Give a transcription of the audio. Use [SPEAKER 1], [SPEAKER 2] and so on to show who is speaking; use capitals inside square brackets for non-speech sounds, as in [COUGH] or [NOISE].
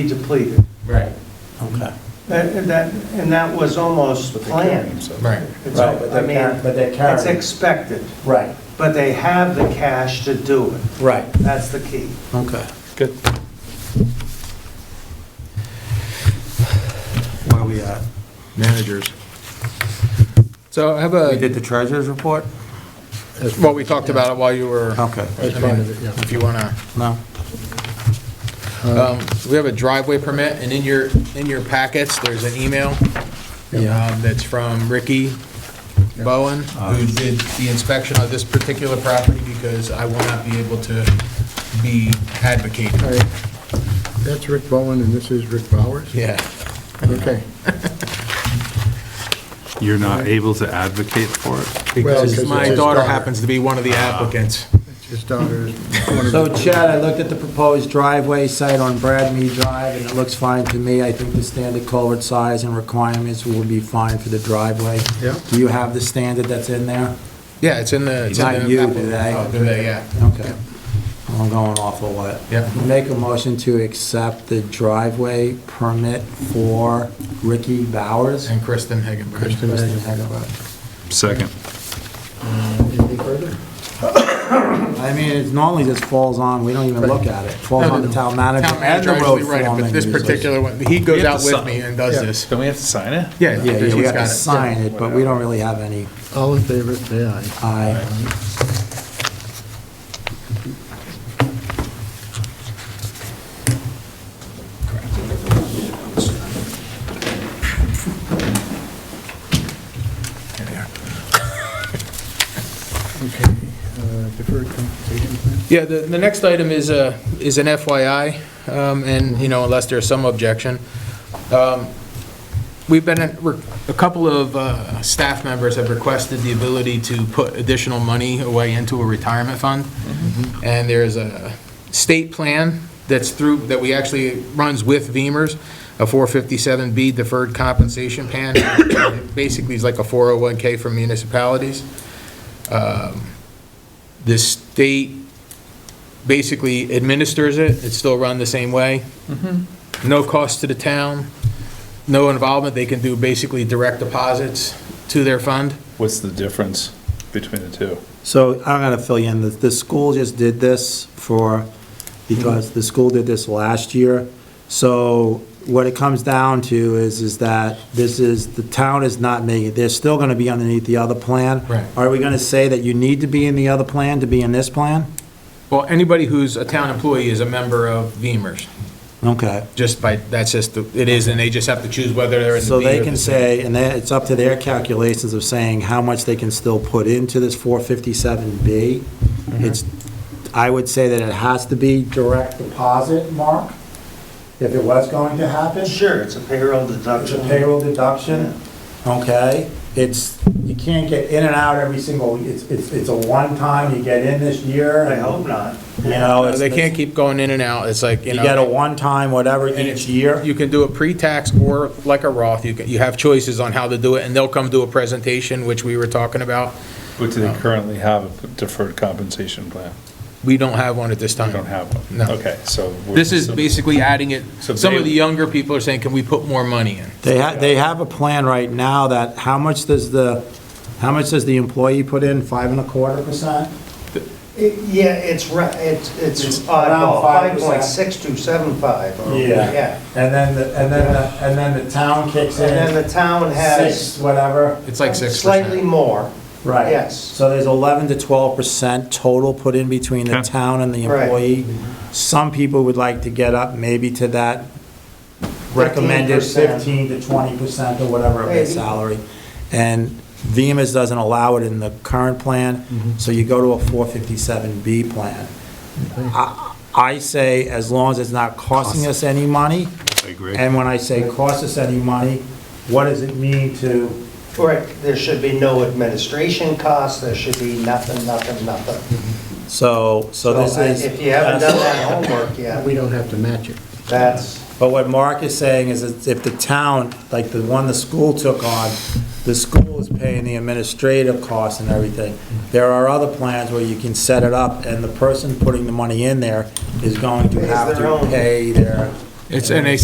[SPEAKER 1] depleted.
[SPEAKER 2] Right,
[SPEAKER 3] Okay.
[SPEAKER 1] That, and that, and that was almost planned.
[SPEAKER 2] right.
[SPEAKER 1] It's-
[SPEAKER 3] Right, but
[SPEAKER 1] I
[SPEAKER 3] they're
[SPEAKER 1] mean,
[SPEAKER 3] car- but they're carrying.
[SPEAKER 1] It's expected,
[SPEAKER 3] Right,
[SPEAKER 1] but they have the cash to do it.
[SPEAKER 3] right,
[SPEAKER 1] That's the key.
[SPEAKER 3] okay. Good. Where we at?
[SPEAKER 4] managers. So I have
[SPEAKER 3] Uh, We
[SPEAKER 4] a,
[SPEAKER 3] did the treasurer's report?
[SPEAKER 4] well, we talked about it while you were,
[SPEAKER 3] Okay.
[SPEAKER 4] I mean, if you want to,
[SPEAKER 3] No?
[SPEAKER 4] we have a driveway permit, and in your, in your packets, there's an email
[SPEAKER 3] Yeah.
[SPEAKER 4] um, that's from Ricky Bowen, who did the inspection of this particular property, because I will not be able to be advocating.
[SPEAKER 5] All right. That's Rick Bowen, and this is Rick Bowers?
[SPEAKER 4] Yeah.
[SPEAKER 5] Okay.
[SPEAKER 6] You're not able to advocate for it?
[SPEAKER 4] Because
[SPEAKER 5] because it's
[SPEAKER 4] my
[SPEAKER 5] his
[SPEAKER 4] daughter Uh,
[SPEAKER 5] daughter.
[SPEAKER 4] happens to be one of the applicants.
[SPEAKER 5] His daughter is one of the...
[SPEAKER 3] So Chad, I looked at the proposed driveway site on Bradmead Drive, and it looks fine to me. I think the standard culvert size and requirements will be fine for the driveway.
[SPEAKER 5] Yeah.
[SPEAKER 3] Do you have the standard that's in there?
[SPEAKER 4] Yeah, it's in the. it's in
[SPEAKER 3] Not
[SPEAKER 4] the
[SPEAKER 3] you,
[SPEAKER 4] apple-
[SPEAKER 3] do they?
[SPEAKER 4] Oh, do they, yeah.
[SPEAKER 3] Okay. I'm going off of what?
[SPEAKER 4] Yeah.
[SPEAKER 3] Make a motion to accept the driveway permit for Ricky Bowers.
[SPEAKER 4] And Kristen
[SPEAKER 3] Kristen
[SPEAKER 4] Higginbotham.
[SPEAKER 3] Hegelbach.
[SPEAKER 6] Second.
[SPEAKER 5] Anything further?
[SPEAKER 3] I mean, it normally just falls on, we don't even look at it. Falls on the town manager
[SPEAKER 4] Town
[SPEAKER 3] and
[SPEAKER 4] manager
[SPEAKER 3] the road
[SPEAKER 4] actually right,
[SPEAKER 3] foreman.
[SPEAKER 4] but this
[SPEAKER 3] usually.
[SPEAKER 4] particular one, he
[SPEAKER 6] We
[SPEAKER 4] goes
[SPEAKER 6] have
[SPEAKER 4] out
[SPEAKER 6] to
[SPEAKER 4] with
[SPEAKER 6] sign.
[SPEAKER 4] me and does
[SPEAKER 5] Yeah.
[SPEAKER 4] this.
[SPEAKER 6] Don't we have to sign it?
[SPEAKER 4] Yeah,
[SPEAKER 3] Yeah, yeah, we
[SPEAKER 4] he's
[SPEAKER 3] have to
[SPEAKER 4] got it.
[SPEAKER 3] sign it, but we don't really have any
[SPEAKER 5] All in favor, say aye.
[SPEAKER 3] eye.
[SPEAKER 5] Okay. uh, Deferred compensation plan?
[SPEAKER 4] Yeah, the, the next item is a, is an FYI, um, and, you know, unless there's some objection. Um, We've been, at- we're- a couple of uh, staff members have requested the ability to put additional money away into a retirement fund. And there's a state plan that's through, that we actually, runs with VEMR's, a 457B deferred compensation plan. [COUGHS] Basically, it's like a 401K for municipalities. Um, The state basically administers it, it's still run the same way.
[SPEAKER 3] Mm-hmm.
[SPEAKER 4] No cost to the town, no involvement, they can do basically direct deposits to their fund.
[SPEAKER 6] What's the difference between the two?
[SPEAKER 3] So I'm going to fill you in. The, the school just did this for, because the school did this last year. So what it comes down to is, is that this is, the town is not making, they're still going to be underneath the other plan.
[SPEAKER 4] Right.
[SPEAKER 3] Are we going to say that you need to be in the other plan to be in this plan?
[SPEAKER 4] Well, anybody who's a town employee is a member of VEMR's,
[SPEAKER 3] Okay.
[SPEAKER 4] just by, that's just, the- it is, and they just have to choose whether they're in the
[SPEAKER 3] So
[SPEAKER 4] B
[SPEAKER 3] they
[SPEAKER 4] or
[SPEAKER 3] can
[SPEAKER 4] the C.
[SPEAKER 3] say, and then it's up to their calculations of saying how much they can still put into this 457B.
[SPEAKER 4] Mm-hmm.
[SPEAKER 3] It's, I would say that it has to be direct deposit, Mark, if it was going to happen.
[SPEAKER 1] Sure, it's a payroll
[SPEAKER 3] It's a
[SPEAKER 1] deduction.
[SPEAKER 3] payroll deduction, okay? It's, you can't get in and out every single, it's, it's it's a one-time, you get in this year,
[SPEAKER 1] I
[SPEAKER 3] and,
[SPEAKER 1] hope not.
[SPEAKER 3] you know,
[SPEAKER 4] Uh,
[SPEAKER 3] it's,
[SPEAKER 4] They can't
[SPEAKER 3] you
[SPEAKER 4] keep going in and out, it's like, you know.
[SPEAKER 3] get a one-time, whatever,
[SPEAKER 4] and
[SPEAKER 3] each
[SPEAKER 4] it's-
[SPEAKER 3] year.
[SPEAKER 4] You can do a pre-tax or like a Roth, you can, you have choices on how to do it, and they'll come do a presentation, which we were talking about.
[SPEAKER 6] But do they currently have a deferred compensation plan?
[SPEAKER 4] We don't have one at this time.
[SPEAKER 6] They don't have one?
[SPEAKER 4] No.
[SPEAKER 6] Okay, so. we're-
[SPEAKER 4] This is basically adding it,
[SPEAKER 6] So
[SPEAKER 4] some of
[SPEAKER 6] they-
[SPEAKER 4] the younger people are saying, can we put more money in?
[SPEAKER 3] They have, they have a plan right now that, how much does the, how much does the employee put in? Five and a quarter percent?
[SPEAKER 1] It- Yeah, it's, ri- it's,
[SPEAKER 3] It's
[SPEAKER 1] it's
[SPEAKER 3] around
[SPEAKER 1] oddball,
[SPEAKER 3] 5%.
[SPEAKER 1] 5.6275. or- Yeah.
[SPEAKER 3] And then, the- and then, the- and then the town kicks
[SPEAKER 1] And then
[SPEAKER 3] in,
[SPEAKER 1] the town
[SPEAKER 3] six,
[SPEAKER 1] has
[SPEAKER 3] whatever.
[SPEAKER 4] It's like six
[SPEAKER 1] slightly
[SPEAKER 4] percent.
[SPEAKER 1] more.
[SPEAKER 3] Right.
[SPEAKER 1] Yes.
[SPEAKER 3] So there's 11 to 12 percent total put in between the
[SPEAKER 6] Yeah.
[SPEAKER 3] town and the
[SPEAKER 1] Right.
[SPEAKER 3] employee. Some people would like to get up maybe to that recommended
[SPEAKER 1] 15%.
[SPEAKER 3] 15 to 20 percent or whatever of their
[SPEAKER 1] Maybe.
[SPEAKER 3] salary. And VEMR's doesn't allow it in the current plan,
[SPEAKER 6] Mm-hmm.
[SPEAKER 3] so you go to a 457B plan. I- I say, as long as it's not costing us any money,
[SPEAKER 6] I agree.
[SPEAKER 3] and when I say cost us any money, what does it mean to
[SPEAKER 1] Correct, there should be no administration costs, there should be nothing, nothing, nothing.
[SPEAKER 3] So, so this
[SPEAKER 1] I-
[SPEAKER 3] is.
[SPEAKER 1] If you haven't done that homework yet,
[SPEAKER 5] We don't have to match it.
[SPEAKER 1] that's,
[SPEAKER 3] But what Mark is saying is that if the town, like the one the school took on, the school is paying the administrative costs and everything. There are other plans where you can set it up and the person putting the money in there is going to
[SPEAKER 1] Pays
[SPEAKER 3] have
[SPEAKER 1] their
[SPEAKER 3] to
[SPEAKER 1] own.
[SPEAKER 3] pay their
[SPEAKER 6] It's, and they